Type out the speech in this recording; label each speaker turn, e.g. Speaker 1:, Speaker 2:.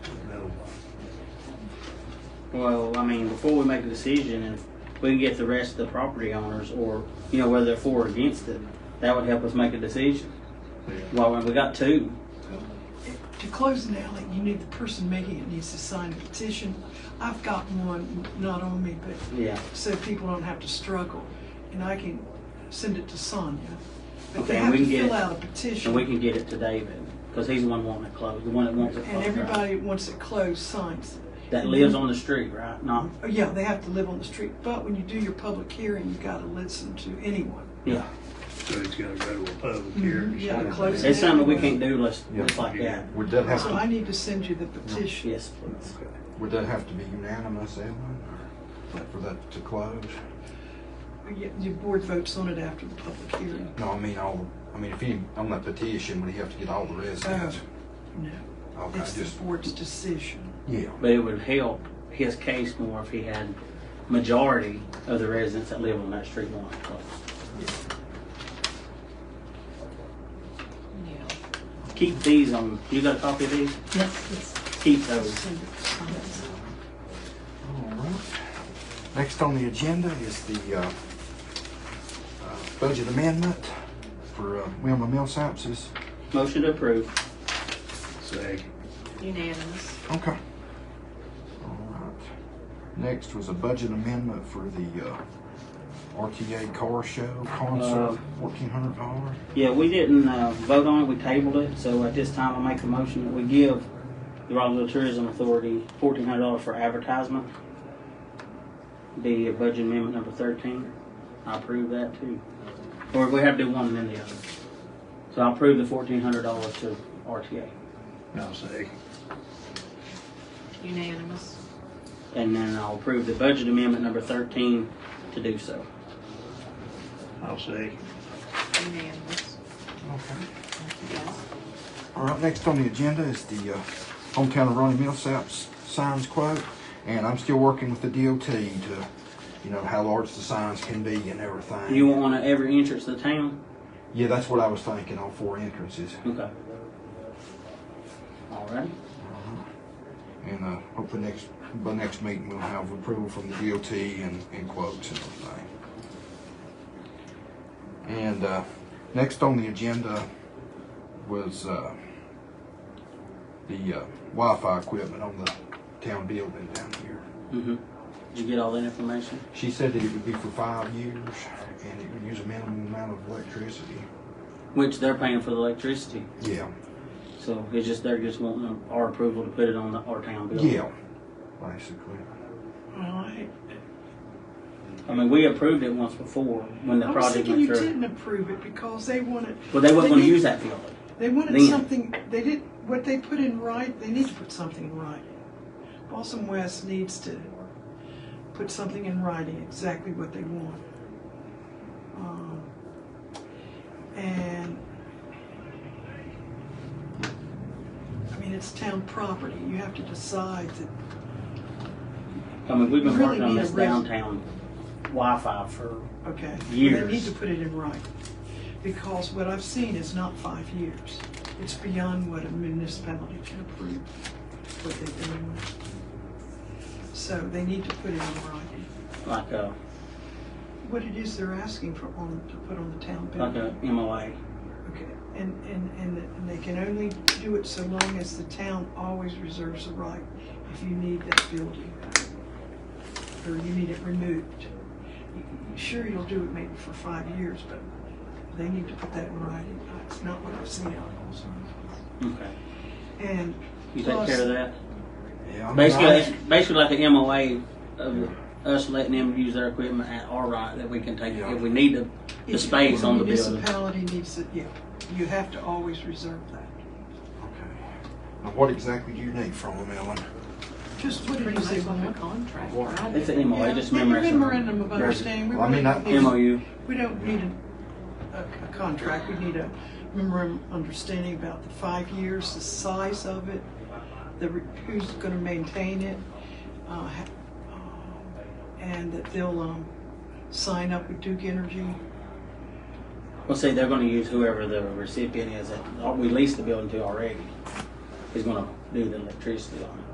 Speaker 1: Well, I mean, before we make a decision, if we can get the rest of the property owners or, you know, whether they're for or against it, that would help us make a decision. Well, we got two.
Speaker 2: To close an alley, you need the person making it needs to sign a petition. I've got one, not on me, but
Speaker 1: Yeah.
Speaker 2: so people don't have to struggle. And I can send it to Sonia. But
Speaker 1: Okay,
Speaker 2: they
Speaker 1: and
Speaker 2: have
Speaker 1: we
Speaker 2: to
Speaker 1: can get
Speaker 2: fill
Speaker 1: it-
Speaker 2: out a
Speaker 1: And we
Speaker 2: petition.
Speaker 1: can get it to David, because he's the one wanting it closed, the one that wants it closed.
Speaker 2: And
Speaker 1: right?
Speaker 2: everybody that wants it closed signs it.
Speaker 1: That lives on the street, right? Not,
Speaker 2: Oh, Yeah, they have to live on the street. But when you do your public hearing, you gotta listen to anyone.
Speaker 1: yeah.
Speaker 3: So it's gotta go to a public hearing.
Speaker 2: Mhm, yeah, close
Speaker 1: It's something we can't do unless,
Speaker 4: Yeah.
Speaker 1: it's like that.
Speaker 4: Would that have
Speaker 2: So I
Speaker 4: to,
Speaker 2: need to send you the petition.
Speaker 1: Yes, please.
Speaker 3: Okay.
Speaker 4: would that have to be unanimous, Evelyn, or for that to close?
Speaker 2: Oh, Yeah, Your board votes on it after the public hearing.
Speaker 4: No, I mean, all, I mean, if he, on that petition, would he have to get all the residents?
Speaker 2: No,
Speaker 4: Okay,
Speaker 2: it's the
Speaker 4: just,
Speaker 2: board's decision.
Speaker 4: Oh, yeah,
Speaker 1: But it would help his case more if he had majority of the residents that live on that street wanting it closed.
Speaker 5: Yeah.
Speaker 1: Keep these on, you got a copy of these?
Speaker 5: Yes, yes.
Speaker 1: Keep those.
Speaker 2: Send it to Sonia.
Speaker 4: all right. Next on the agenda is the, uh, uh, budget amendment for, uh, Wilma Millsaps's.
Speaker 1: Motion to approve.
Speaker 3: Second.
Speaker 5: Unanimous.
Speaker 4: Okay. All right. Next was a budget amendment for the, uh, RTA car show
Speaker 1: Uh,
Speaker 4: concert, fourteen hundred dollars.
Speaker 1: Yeah, we didn't uh, vote on it, we tabled it, so at this time I make a motion that we give the Rockville Tourism Authority fourteen hundred dollars for advertisement. Be a budget amendment number thirteen, I approve that too. Or we have to do one and then the other. So I approve the fourteen hundred dollars to RTA.
Speaker 3: I'll second.
Speaker 5: Unanimous.
Speaker 1: And then I'll approve the budget amendment number thirteen to do so.
Speaker 3: I'll second.
Speaker 5: Unanimous.
Speaker 4: Okay.
Speaker 5: Yes.
Speaker 4: All right, next on the agenda is the uh, hometown of Ronnie Millsap's signs quote, and I'm still working with the DOT to, you know, how large the signs can be and everything.
Speaker 1: You want one at every entrance to the town?
Speaker 4: Yeah, that's what I was thinking, all four entrances,
Speaker 1: Okay. All right.
Speaker 4: and uh, hopefully next, by next meeting, we'll have approval from the DOT and, and quotes and everything. And uh, next on the agenda was uh, the uh, Wi-Fi equipment on the town building down here.
Speaker 1: Mm-hmm. Did you get all that information?
Speaker 4: She said that it would be for five years and it would use a minimum amount of electricity.
Speaker 1: Which they're paying for the electricity.
Speaker 4: Yeah.
Speaker 1: So it's just, they're just wanting our approval to put it on the, our town bill.
Speaker 4: Yeah, basically.
Speaker 2: Well, I,
Speaker 1: I mean, we approved it once before when the
Speaker 2: I was
Speaker 1: project
Speaker 2: thinking you
Speaker 1: went through.
Speaker 2: didn't approve it because they wanted.
Speaker 1: Well, they wasn't
Speaker 2: they
Speaker 1: gonna
Speaker 2: need-
Speaker 1: use that field.
Speaker 2: They wanted
Speaker 1: then.
Speaker 2: something. They did what they put in right. They need to put something in writing. Balsam West needs to put something in writing exactly what they want. Um, and I mean, it's town property. You have to decide that
Speaker 1: I mean, we've been
Speaker 2: Really
Speaker 1: working on
Speaker 2: need a
Speaker 1: this
Speaker 2: res-
Speaker 1: downtown Wi-Fi for,
Speaker 2: Okay.
Speaker 1: Years.
Speaker 2: They need to put it in writing, because what I've seen is not five years. It's beyond what a municipality can approve, what they're doing. So they need to put it in writing.
Speaker 1: like a,
Speaker 2: What it is they're asking for on, to put on the town
Speaker 1: like
Speaker 2: bill.
Speaker 1: a MOA.
Speaker 2: Okay, and, and, and and they can only do it so long as the town always reserves the right if you need that building. Or you need it removed. You- you- Sure, you'll do it maybe for five years, but they need to put that in writing. It's not what I've seen out of those.
Speaker 1: Okay.
Speaker 2: And
Speaker 1: You take care of that?
Speaker 4: Yeah. I mean,
Speaker 1: Basically,
Speaker 4: I-
Speaker 1: it's basically like a MOA of us letting them use their equipment at our right that we can take it if we need to. The space on the building.
Speaker 2: Municipality needs it, yeah. You have to always reserve that.
Speaker 4: Okay. Now, what exactly do you need from them, Ellen?
Speaker 2: Just what it
Speaker 5: Pretty
Speaker 2: is they
Speaker 5: much on the
Speaker 2: want.
Speaker 5: contract,
Speaker 4: What?
Speaker 5: right?
Speaker 1: It's an MOA, just
Speaker 2: Yeah,
Speaker 1: memorandum.
Speaker 2: Memorandum of understanding. We
Speaker 4: Well, I mean,
Speaker 2: want
Speaker 4: I-
Speaker 2: it-
Speaker 1: MOU.
Speaker 2: We don't need a, a- a contract, we need a memorandum of understanding about the five years, the size of it, the, re- who's gonna maintain it, uh, ha- uh, and that they'll, um, sign up with Duke Energy.
Speaker 1: Well, see, they're going to use whoever the recipient is that we leased the building to already is going to do the electricity on it.